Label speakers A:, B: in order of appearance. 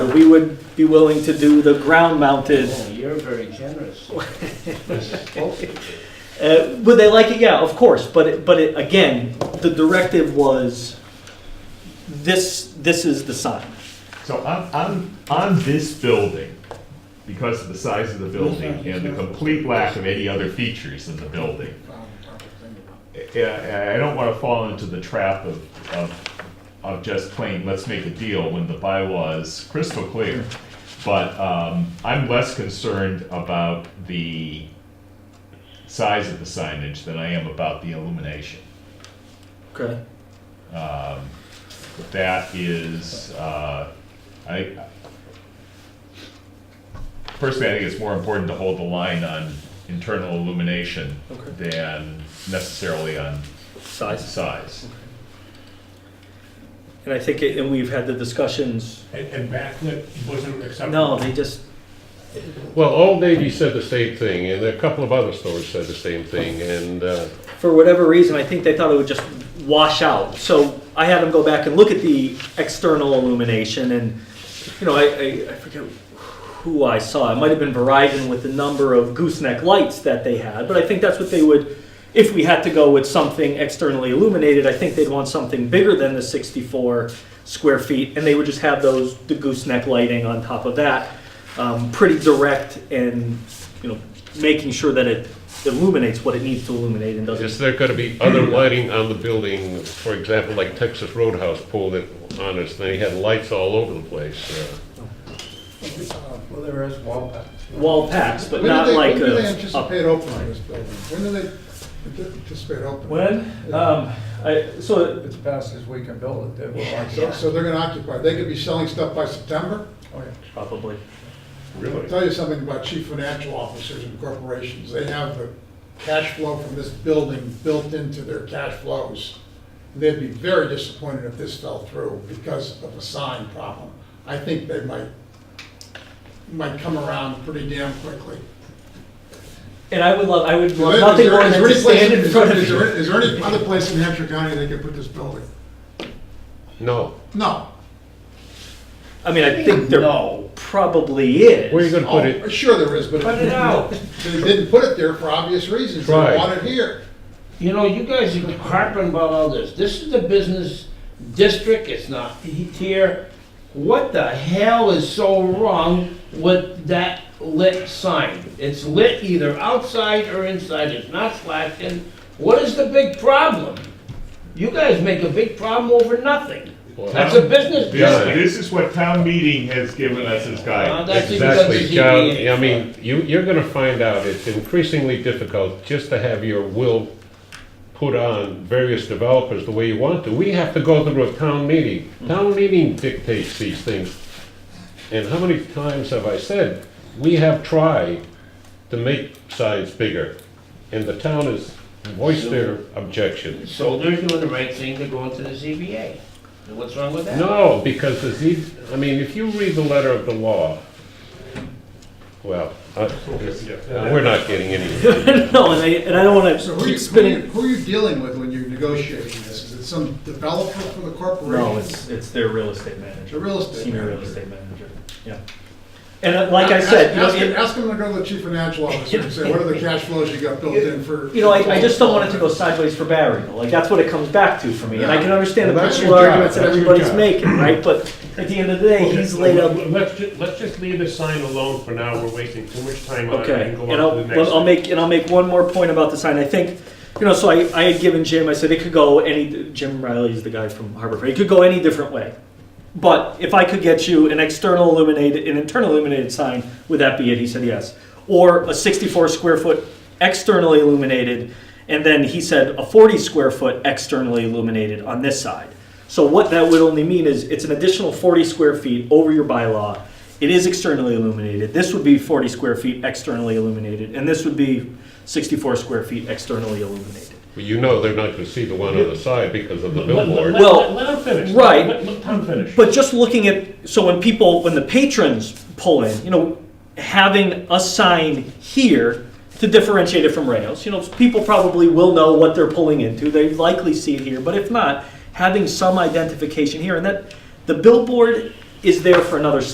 A: We would be willing to do the ground-mounted.
B: Oh, You're very generous.
A: Uh, would they like it? Yeah, of course. But it, but it, again, the directive was this. This is the sign.
C: So on, on, on this building, because of the size of the building and the complete lack of any other features in the building, I, I don't wanna fall into the trap of, of, of just plain, let's make a deal when the bylaw is crystal clear. But, um, I'm less concerned about the size of the signage than I am about the illumination.
A: Okay.
C: Um, that is, uh, I, personally, I think it's more important to hold the line on internal illumination
A: Okay.
C: than necessarily on
A: Size.
C: size.
A: And I think, it, and we've had the discussions.
D: And, and backlit wasn't acceptable.
A: No, they just.
E: Well, Old Navy said the same thing, and a couple of other stores said the same thing, and, uh,
A: for whatever reason, I think they thought it would just wash out. So I had them go back and look at the external illumination, and you know, I, I, I forget who I saw. It might have been Verizon with the number of gooseneck lights that they had, but I think that's what they would. If we had to go with something externally illuminated, I think they'd want something bigger than the 64 square feet, and they would just have those the gooseneck lighting on top of that, um, pretty direct and you know, making sure that it illuminates what it needs to illuminate and doesn't
E: is there gonna be other lighting on the building? For example, like Texas Roadhouse pulled it on us, they had lights all over the place. uh,
F: Well, there is wall packs.
A: wall packs, but
F: When do
A: not
F: they-
A: like
F: When do they
A: a.
F: anticipate opening this building? When do they anticipate opening?
A: When,
F: Yeah.
A: um, I, so,
G: It's past as we can build it, they will
F: So,
G: occupy.
F: so they're gonna occupy, they could be selling stuff by September?
A: probably.
F: I'll tell you something about chief financial officers and corporations, they have the cash flow from this building built into their cash flows. They'd be very disappointed if this fell through because of a sign problem. I think they might, might come around pretty damn quickly.
A: And I would love, I would
F: Well,
A: love nothing
F: is there-
A: more
F: is
A: than
F: there
A: to
F: any place-
A: stand in
F: is-
A: front of
F: is there-
A: you.
F: Is there any other place in Hampshire County they could put this building?
E: No,
F: No.
A: I mean, I think there probably is.
E: where are you gonna put it?
F: Oh, Sure there is, but.
B: Put it out.
F: They didn't put it there for obvious reasons. They
E: Right.
F: want it here.
B: You know, you guys are harping about all this. This is the business district, it's not he- here. What the hell is so wrong with that lit sign? It's lit either outside or inside, it's not flashing. What is the big problem? You guys make a big problem over nothing. That's a business
C: This,
B: district.
C: this is what town meeting has given us as
B: Uh,
C: guidance.
B: that's because
E: Exactly,
B: of
E: John,
B: ZBA.
E: I mean, you, you're gonna find out it's increasingly difficult just to have your will put on various developers the way you want to. We have to go through a town meeting. Town meeting dictates these things. And how many times have I said, we have tried to make signs bigger, and the town has voiced their objection.
B: So they're doing the right thing, they're going to the ZBA. And What's wrong with that?
E: No, because the Z, I mean, if you read the letter of the law, well, I- we're not getting any.
A: No, and I, and I don't
F: So
A: wanna
F: who
A: keep
F: are you, who are you-
A: spinning.
F: who are you dealing with when you're negotiating this? Is it some developer for the corporation?
A: No, it's, it's their real estate
F: It's a
A: manager,
F: real estate.
A: senior real
F: manager.
A: estate manager, yeah. And uh, like I said, you know,
F: Ask
A: it-
F: ask- ask them to go to the chief financial officer and say, what are the cash flows you got built in for?
A: You know, I, I just don't want it to go sideways for Barry. Like, that's what it comes back to for me. And I can understand the
E: Well, that's
A: principal
E: your job.
A: arguments that
E: That's your
A: everybody's
E: job.
A: making, right? But at the end of the day, he's laid out.
D: Okay, Let's, ju- let's just leave the sign alone for now, we're wasting too much time on it. We
A: Okay,
D: can go
A: and
D: on to
A: I'll,
D: the next
A: but I'll
D: thing.
A: make, and I'll make one more point about the sign. I think, you know, so I, I had given Jim, I said it could go any, Jim Riley is the guy from Harbor Freight, it could go any different way. But if I could get you an external illuminated, an internal illuminated sign, would that be it? He said yes. Or a 64 square foot externally illuminated, and then he said a 40 square foot externally illuminated on this side. So what that would only mean is it's an additional 40 square feet over your bylaw. It is externally illuminated. This would be 40 square feet externally illuminated, and this would be 64 square feet externally illuminated.
E: Well, you know they're not gonna see the one on the side because of the
D: Let- let-
E: billboard.
D: let-
A: Well,
D: Let him finish.
A: right.
D: Let- Let Tom finish.
A: But just looking at, so when people, when the patrons pull in, you know, having a sign here to differentiate it from Rayo's, you know, people probably will know what they're pulling into. They likely see it here, but if not, having some identification here. And that, the billboard is there for another